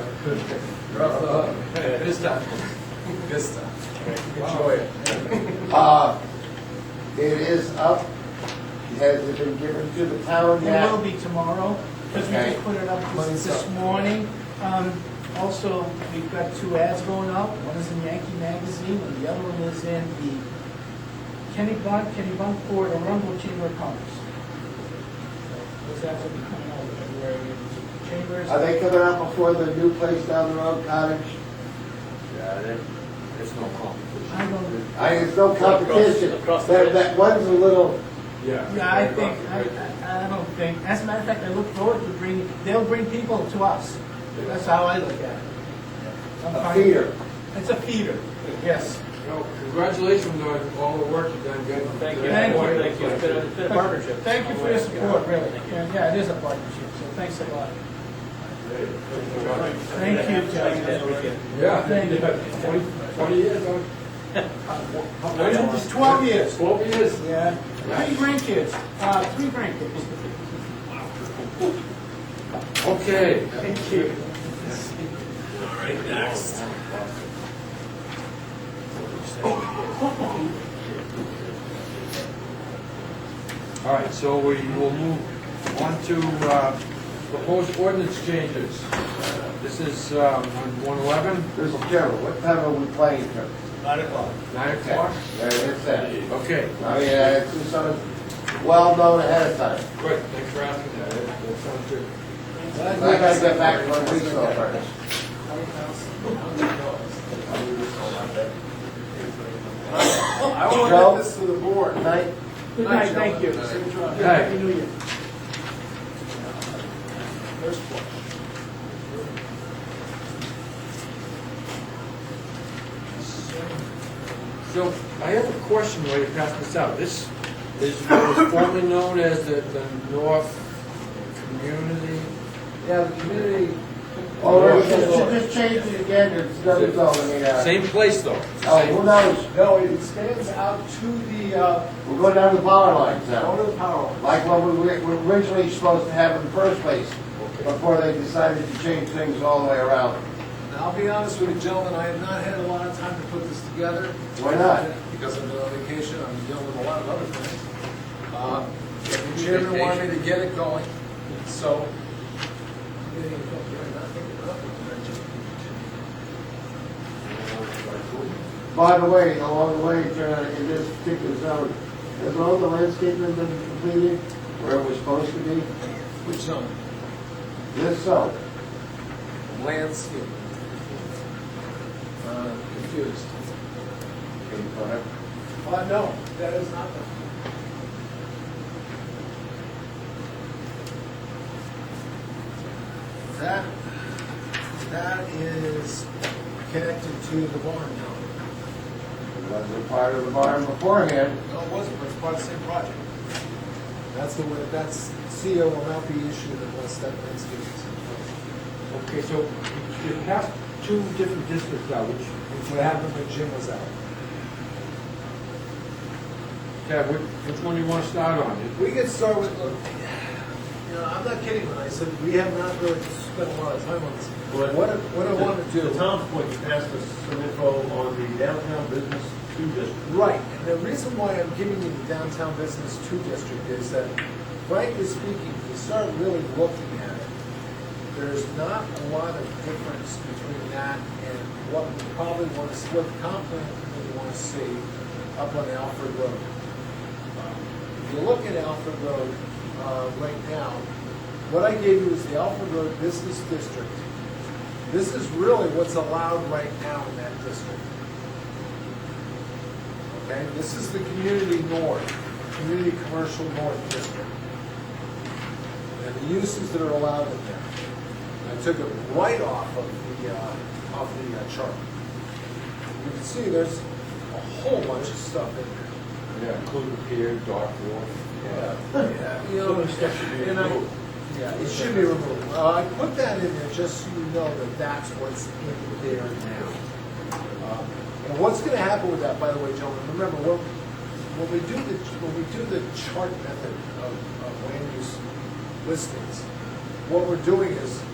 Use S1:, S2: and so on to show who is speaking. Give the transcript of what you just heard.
S1: You're off the hook. This time. This time. Enjoy it.
S2: Uh, it is up, has it been given to the town
S3: It will
S2: yet?
S3: be tomorrow, because we
S2: Okay.
S3: just put it up
S1: Money's
S3: this- this
S1: up.
S3: morning. Um, Also, we've got two ads going up, one is in Yankee Magazine, and the other one is in the Kennebunk, Kennebunkport, and Rumble Chamber of Commerce. So, Those ads will be coming out with February chambers.
S2: Are they coming out before the new place down the road, cottage?
S4: Yeah, there- there's no competition.
S3: I don't,
S2: I, it's no competition.
S4: Across- across the
S2: That,
S4: bridge.
S2: that one's a little,
S3: yeah, I think, I, I I don't think, as a matter of fact, I look forward to bringing, they'll bring people to us. That's how I look at it. I'm
S2: a
S3: fine.
S2: feeder.
S3: It's a feeder, yes.
S1: Well, Congratulations on all the work you've done, good.
S4: Thank you.
S3: Thank you.
S4: Thank you. It's been a- it's been a partnership.
S3: Thank you for your support, really. Yeah, yeah, it is a partnership, so thanks a lot. Thank you, John.
S1: Yeah.
S3: Thank you.
S1: Twenty, twenty years, huh?
S3: It's twelve years.
S1: Twelve years.
S3: Yeah. Three grandkids, uh, three grandkids.
S1: Okay.
S3: Thank you.
S1: All right, so we will move on to uh, proposed ordinance changes. This is um, on one eleven,
S2: Mr. Chairman, what time are we playing for?
S1: nine o'clock.
S2: There it is then.
S1: Okay,
S2: I mean, uh, it's just sort of well known ahead of time.
S1: good, thanks for asking that. That that sounds good.
S2: I gotta get back one week so first.
S5: I want
S2: Joe?
S5: to get this to the board.
S2: Tonight,
S3: Good night, thank you.
S1: Good night.
S3: Happy New Year.
S1: So I have a question while you pass this out. This is what was formerly known as the the North Community.
S2: yeah, the community, oh, just, just change it again, it's done, it's all, I mean, uh,
S1: Same place, though.
S2: oh, who knows?
S5: No, it stands out to the, uh,
S2: We're going down the power lines now.
S5: owner of power.
S2: like what we were originally supposed to have in the first place, before they decided to change things all the way around.
S5: And I'll be honest with you, gentlemen, I have not had a lot of time to put this together. Uh,
S2: Why not?
S5: Because I've been on vacation, I'm dealing with a lot of other things. Uh, and The chairman wanted me to get it going, so.
S2: By the way, along the way, uh, in this particular zone, has all the landscaping been completed where it was supposed to be?
S5: Which um, zone?
S2: This zone,
S5: Landscape. Uh, Confused. Well, Uh, no, that is not the. That, that is connected to the barn now.
S2: it wasn't part of the barn beforehand.
S5: No, it wasn't, but it's part of the same project. That's the way, that's, CO will not be issued unless that landscape is in place.
S1: Okay, so you passed two different districts now, which,
S5: Which would happen when Jim was out.
S1: Ted, which which one do you want to start on?
S5: We could start with, look, you know, I'm not kidding when I said we have not really spent a lot of time on this.
S6: But-
S5: What, I- what I want to do.
S6: To Tom's point, you passed us some info on the downtown business two district.
S5: Right, and the reason why I'm giving you the downtown business two district is that, frankly speaking, if you start really looking at it, there's not a lot of difference between that and what we probably want to, what the comp plan we want to see up on Alfred Road. If you look at Alfred Road, uh, right now, what I gave you is the Alfred Road Business District. This is really what's allowed right now in that district. Okay, this is the community north, community commercial north district. And the uses that are allowed in there. I took it right off of the, uh, off the uh, chart. You can see there's a whole bunch of stuff in there.
S1: Yeah, including Pier, Dark Wharf.
S5: Yeah. You know, and I, yeah, it should be removed. Uh, I put that in there just so you know that that's what's in there now. Um, And what's gonna happen with that, by the way, gentlemen, remember, when, when we do the, when we do the chart method of, of land use listings, what we're doing is,